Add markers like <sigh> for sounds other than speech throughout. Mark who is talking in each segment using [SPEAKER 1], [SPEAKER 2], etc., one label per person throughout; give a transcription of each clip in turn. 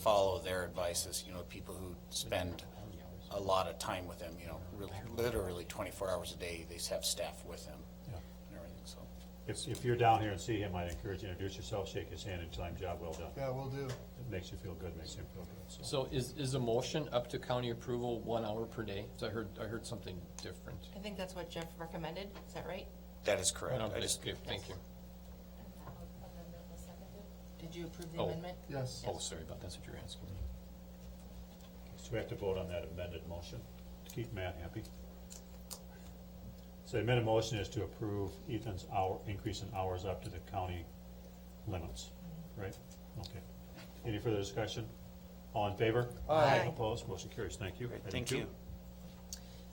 [SPEAKER 1] follow their advices, you know, people who spend a lot of time with them, you know, really, literally twenty-four hours a day, they have staff with them
[SPEAKER 2] Yeah.
[SPEAKER 1] and everything, so.
[SPEAKER 2] If, if you're down here and see him, I'd encourage you to introduce yourself, shake his hand, and tell him job well done.
[SPEAKER 3] Yeah, we will do.
[SPEAKER 2] It makes you feel good, makes him feel good, so.
[SPEAKER 4] So is, is a motion up to county approval one hour per day? 'Cause I heard, I heard something different.
[SPEAKER 5] I think that's what Jeff recommended, is that right?
[SPEAKER 1] That is correct. I
[SPEAKER 4] Okay,
[SPEAKER 1] just,
[SPEAKER 4] Thank you.
[SPEAKER 5] Did you approve the
[SPEAKER 4] Oh.
[SPEAKER 5] amendment?
[SPEAKER 3] Yes.
[SPEAKER 4] Oh, sorry about, that's what you were asking me.
[SPEAKER 2] So we have to vote on that amended motion to keep Matt happy. So the amended motion is to approve Ethan's hour, increase in hours up to the county limits, right? Okay. Any further discussion? All in favor?
[SPEAKER 5] Aye.
[SPEAKER 2] Opposed? Motion carries. Thank you.
[SPEAKER 1] Great,
[SPEAKER 2] Item
[SPEAKER 1] thank
[SPEAKER 2] two.
[SPEAKER 1] you.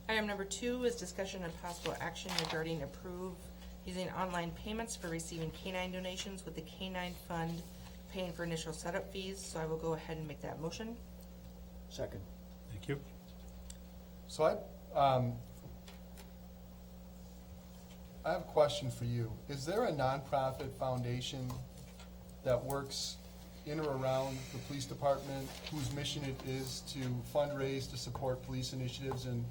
[SPEAKER 5] Item number two is discussion and possible action regarding approve using online payments for receiving canine donations with the canine fund paying for initial setup fees, so I will go ahead and make that motion.
[SPEAKER 3] Second.
[SPEAKER 2] Thank you.
[SPEAKER 3] So I, um, I have a question for you. Is there a nonprofit foundation that works in or around the police department whose mission it is to fundraise to support police initiatives and,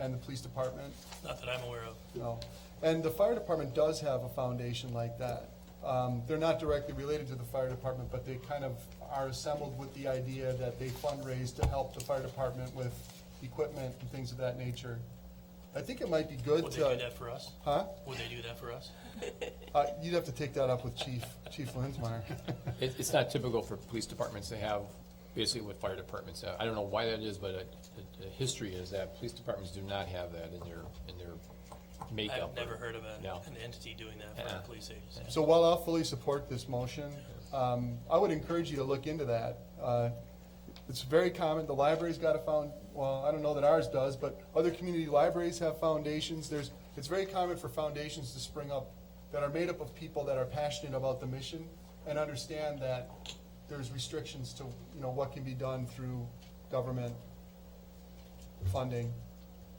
[SPEAKER 3] and the police department?
[SPEAKER 6] Not that I'm aware of.
[SPEAKER 3] No. And the fire department does have a foundation like that. Um, they're not directly related to the fire department, but they kind of are assembled with the idea that they fundraise to help the fire department with equipment and things of that nature. I think it might be good
[SPEAKER 6] Would they do
[SPEAKER 3] to,
[SPEAKER 6] that for us?
[SPEAKER 3] uh, huh?
[SPEAKER 6] Would they do that for us?
[SPEAKER 3] Uh, you'd have to take that up with Chief, Chief Lindsmeyer.
[SPEAKER 4] It, it's not typical for police departments to have basically what fire departments have. I don't know why that is, but it- it- the history is that police departments do not have that in their, in their makeup.
[SPEAKER 6] I've never heard of an,
[SPEAKER 4] No.
[SPEAKER 6] an entity doing that for a
[SPEAKER 4] Uh-uh.
[SPEAKER 6] police agency.
[SPEAKER 3] So while I'll fully support this motion, um, I would encourage you to look into that. Uh, It's very common, the library's got a found, well, I don't know that ours does, but other community libraries have foundations. There's, it's very common for foundations to spring up that are made up of people that are passionate about the mission and understand that there's restrictions to, you know, what can be done through government funding.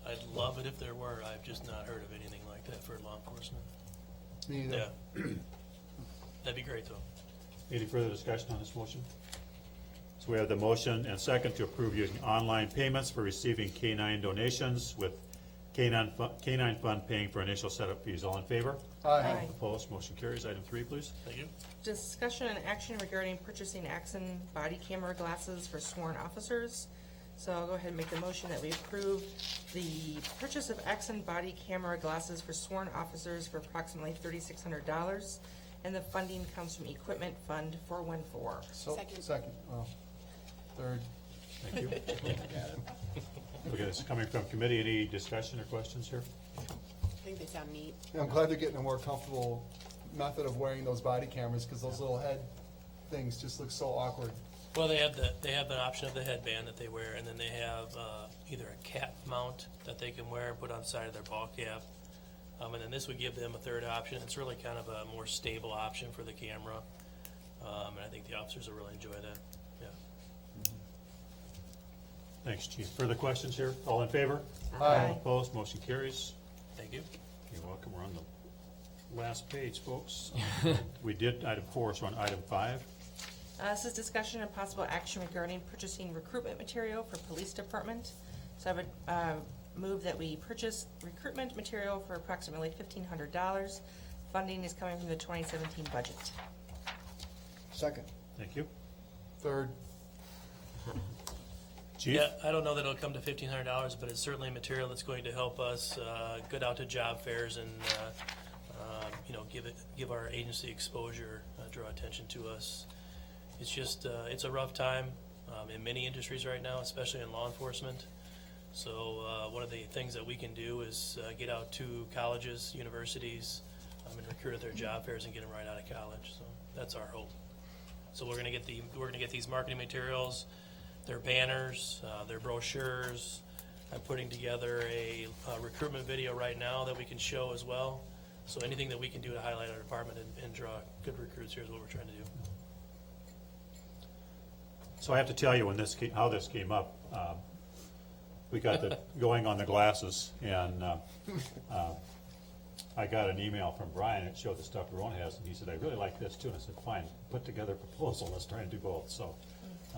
[SPEAKER 6] I'd love it if there were. I've just not heard of anything like that for law enforcement.
[SPEAKER 3] Me either.
[SPEAKER 6] Yeah. <clears throat> That'd be great, though.
[SPEAKER 2] Any further discussion on this motion? So we have the motion and second to approve using online payments for receiving K-9 donations with K-9 fu- K-9 fund paying for initial setup fees. All in favor?
[SPEAKER 3] Aye.
[SPEAKER 2] Opposed? Motion carries. Item three, please.
[SPEAKER 6] Thank you.
[SPEAKER 5] Discussion and action regarding purchasing Axon body camera glasses for sworn officers. So I'll go ahead and make the motion that we approve the purchase of Axon body camera glasses for sworn officers for approximately thirty-six hundred dollars. And the funding comes from Equipment Fund four one four.
[SPEAKER 3] So, second, oh, third.
[SPEAKER 2] <laughs> Thank you. Okay, this is coming from committee. Any discussion or questions here?
[SPEAKER 7] I think they sound neat.
[SPEAKER 3] Yeah, I'm glad they're getting a more comfortable method of wearing those body cameras, because those little head things just look so awkward.
[SPEAKER 6] Well, they have the, they have the option of the headband that they wear, and then they have, uh, either a cap mount that they can wear and put on the side of their ball cap. Um, and then this would give them a third option. It's really kind of a more stable option for the camera. Um, and I think the officers will really enjoy that, yeah.
[SPEAKER 2] Thanks, chief. Further questions here? All in favor?
[SPEAKER 3] Aye.
[SPEAKER 2] Opposed? Motion carries.
[SPEAKER 6] Thank you.
[SPEAKER 2] You're welcome. We're on the last page, <laughs> folks. We did item four, so on item five.
[SPEAKER 5] Uh, This is discussion and possible action regarding purchasing recruitment material for police department. So I would uh, move that we purchase recruitment material for approximately fifteen hundred dollars. Funding is coming from the twenty seventeen budget.
[SPEAKER 3] Second.
[SPEAKER 2] Thank you.
[SPEAKER 3] Third.
[SPEAKER 2] Chief?
[SPEAKER 6] Yeah, I don't know that it'll come to fifteen hundred dollars, but it's certainly material that's going to help us, uh, get out to job fairs and, uh, um, you know, give it, give our agency exposure, uh, draw attention to us. It's just, uh, it's a rough time, um, in many industries right now, especially in law enforcement. So, uh, one of the things that we can do is, uh, get out to colleges, universities, um, and recruit at their job fairs and get them right out of college, so that's our hope. So we're gonna get the, we're gonna get these marketing materials, their banners, uh, their brochures. I'm putting together a uh, recruitment video right now that we can show as well. So anything that we can do to highlight our department and, and draw good recruits here is what we're trying to do.
[SPEAKER 2] So I have to tell you when this, ca- how this came up, um, we got the, going on the glasses, and uh, uh, I got an email from Brian, it showed the stuff Verona has, and he said, I really like this too, and I said, fine, put together a proposal, let's try and do both, so